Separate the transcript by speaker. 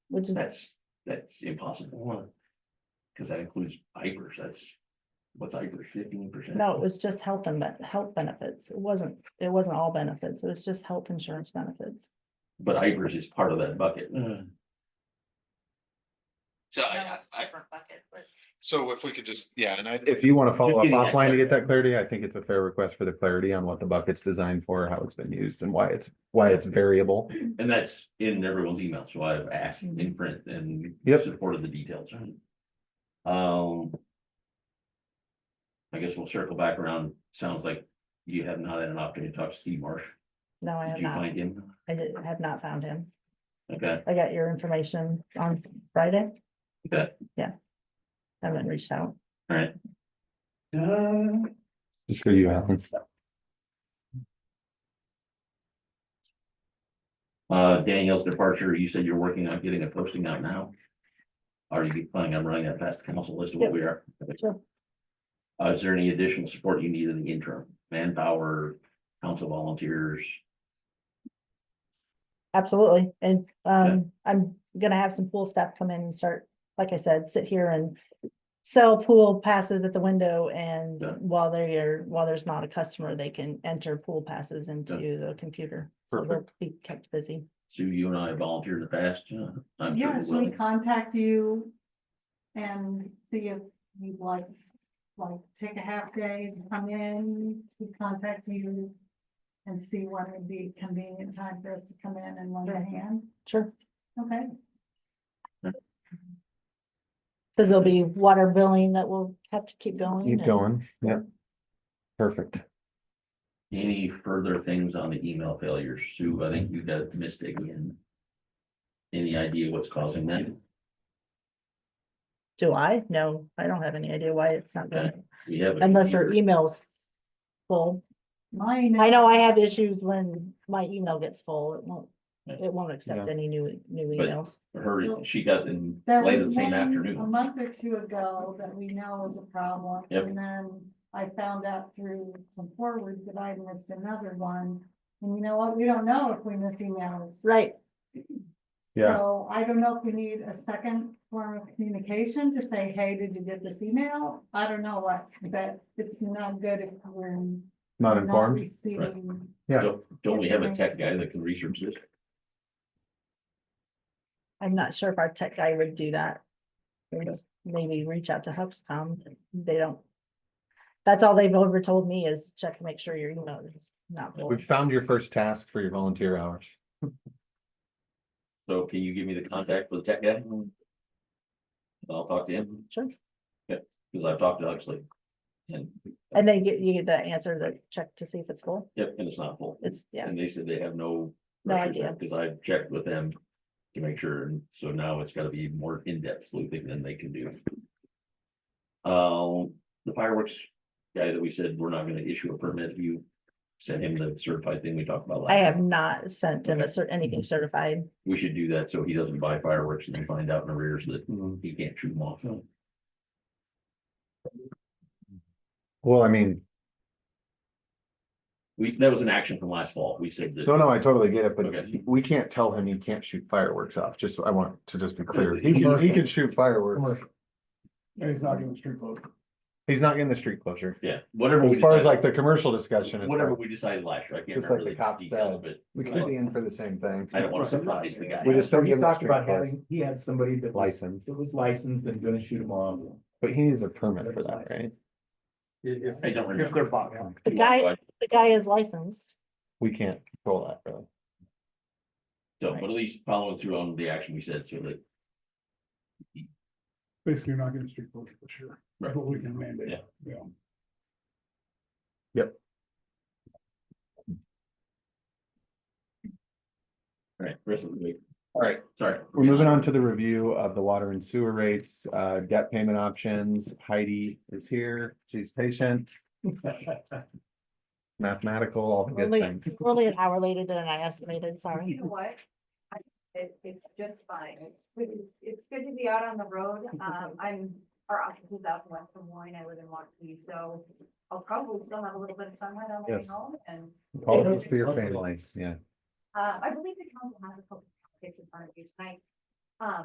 Speaker 1: which is,
Speaker 2: That's, that's impossible. Cause that includes Ivers, that's, what's Ivers, fifteen percent?
Speaker 1: no, it was just health and, ben- health benefits. It wasn't, it wasn't all benefits. It was just health insurance benefits.
Speaker 2: But Ivers is part of that bucket.
Speaker 3: Mm. So I, I,
Speaker 4: So if we could just, yeah, and I.
Speaker 5: If you want to follow up
Speaker 2: getting that
Speaker 5: offline to get that clarity, I think it's a fair request for the clarity on what the bucket's designed for, how it's been used and why it's, why it's variable.
Speaker 2: And that's in everyone's email, so I've asked
Speaker 1: Mm.
Speaker 2: in print and
Speaker 5: Yep.
Speaker 2: supported the details. Um. I guess we'll circle back around. Sounds like you have not had an opportunity to talk to Steve Marsh.
Speaker 1: No, I
Speaker 2: Did
Speaker 1: have
Speaker 2: you
Speaker 1: not,
Speaker 2: find him?
Speaker 1: I did, have not found him.
Speaker 2: Okay,
Speaker 1: I got your information on Friday.
Speaker 2: Okay.
Speaker 1: Yeah. Haven't reached out.
Speaker 2: all right. Uh,
Speaker 5: Just for you, Alan.
Speaker 2: Uh, Danielle's departure, you said you're working on getting a posting out now. Are you planning on running that past the council list of what
Speaker 1: Yep.
Speaker 2: we are?
Speaker 1: Sure.
Speaker 2: Uh, is there any additional support you need in the interim? Manpower, council volunteers?
Speaker 1: Absolutely, and um, I'm gonna have some pool staff come in and start, like I said, sit here and. Sell pool passes at the window and
Speaker 2: Yeah.
Speaker 1: while they are, while there's not a customer, they can enter pool passes into the computer. So they'll
Speaker 5: Perfect.
Speaker 1: Be kept busy.
Speaker 2: Sue, you and I volunteered in the past. uh, I'm sure
Speaker 6: Yes,
Speaker 2: you will.
Speaker 6: we contact you and see if you'd like, like, take a half days, come in, we contact you and see when would be convenient time for us to come in and lend a hand,
Speaker 1: Sure.
Speaker 6: okay?
Speaker 1: Cause there'll be water billing that will have to keep going.
Speaker 5: Keep
Speaker 1: and-
Speaker 5: going. Yep. Perfect.
Speaker 2: Any further things on the email failures? Sue, I think you got missed again. Any idea what's causing that?
Speaker 1: Do I? No, I don't have any idea why it's not
Speaker 2: Okay.
Speaker 1: going,
Speaker 2: We have. a
Speaker 1: unless her
Speaker 2: computer.
Speaker 1: email's full.
Speaker 6: Mine.
Speaker 1: I know I have issues when my email gets full. It won't, it won't accept any new, new
Speaker 2: But-
Speaker 1: emails.
Speaker 2: Her, she got in
Speaker 6: There
Speaker 2: late
Speaker 6: was
Speaker 2: the same
Speaker 6: one um,
Speaker 2: afternoon.
Speaker 6: A month or two ago that we know was a problem.
Speaker 2: Yep.
Speaker 6: And then I found out through some forwards that I missed another one. And you know what? We don't know if we miss emails.
Speaker 1: Right,
Speaker 5: Yeah.
Speaker 6: So I don't know if we need a second form of communication to say, hey, did you get this email? I don't know what, but it's not good if we're
Speaker 5: Not
Speaker 6: not
Speaker 5: informed.
Speaker 6: receiving.
Speaker 5: Yeah.
Speaker 2: Don't- Don't we have a tech guy that can research this?
Speaker 1: I'm not sure if our tech guy would do that. Or just Maybe reach out to Hubscom, they don't. That's all they've ever told me is check to make sure your email is not full.
Speaker 5: We found your first task for your volunteer hours.
Speaker 2: So can you give me the contact for the tech guy? And I'll talk to him,
Speaker 1: Sure.
Speaker 2: because I've talked to Huxley. And,
Speaker 1: And then get, you get the answer, the check to see if it's full,
Speaker 2: yep, and it's not full.
Speaker 1: it's, yeah,
Speaker 2: And they said they have no.
Speaker 1: No idea.
Speaker 2: Because I checked with them to make sure, and so now it's gotta be more in-depth sleuthing than they can do. Um, the fireworks guy that we said we're not gonna issue a permit, you sent him the certified thing we talked about last.
Speaker 1: I have not sent him a cer- anything certified,
Speaker 2: We should do that so he doesn't buy fireworks and then find out in arrears that he can't shoot them off.
Speaker 5: Well, I mean,
Speaker 2: We, that was an action from last fall. We said that.
Speaker 5: no, no, I totally get it, but
Speaker 2: Okay.
Speaker 5: he- we can't tell him he can't shoot fireworks off. Just, I want to just be clear. He can, he can shoot fireworks.
Speaker 7: he's not getting street closed.
Speaker 5: He's not getting the street closure.
Speaker 2: Yeah, whatever. we
Speaker 5: As far as like
Speaker 2: decided-
Speaker 5: the commercial discussion. it's
Speaker 2: Whatever
Speaker 5: fine.
Speaker 2: we decided last year, I can't
Speaker 5: Just like
Speaker 2: remember the
Speaker 5: the cops
Speaker 2: details,
Speaker 5: said.
Speaker 2: but
Speaker 7: We
Speaker 5: We could be in for the same thing.
Speaker 2: I don't wanna surprise the guy.
Speaker 5: We just don't
Speaker 7: He
Speaker 5: give him a
Speaker 7: talked about
Speaker 5: street pass.
Speaker 7: having, he had somebody that was,
Speaker 5: License,
Speaker 7: that was licensed and gonna shoot him off.
Speaker 5: but he needs a permit for that, right?
Speaker 2: I don't remember.
Speaker 7: bought
Speaker 1: the guy,
Speaker 2: Right.
Speaker 1: the guy is licensed,
Speaker 5: We can't control that, really.
Speaker 2: So, but at least following through on the action we said, so that,
Speaker 7: Basically, you're not getting street closure for sure,
Speaker 2: Right.
Speaker 7: but we can mandate.
Speaker 2: Yeah.
Speaker 7: Yeah.
Speaker 2: alright, rest of the week.
Speaker 5: Alright.
Speaker 2: Sorry.
Speaker 5: We're moving on to the review of the water and sewer rates, uh, debt payment options. Heidi is here. She's patient, mathematical, all the good
Speaker 1: only,
Speaker 5: things.
Speaker 1: only an hour later than I estimated, sorry.
Speaker 8: You know what? I- It, it's just fine. It's, good- it's good to be out on the road. Um, I'm, our office is out in West Des Moines. I live in Waukee, so I'll probably still have a little bit of sunlight on my way
Speaker 5: Yes.
Speaker 8: home and,
Speaker 5: All this to your family, yeah.
Speaker 8: uh, I believe the council has a couple of packets in front of you tonight.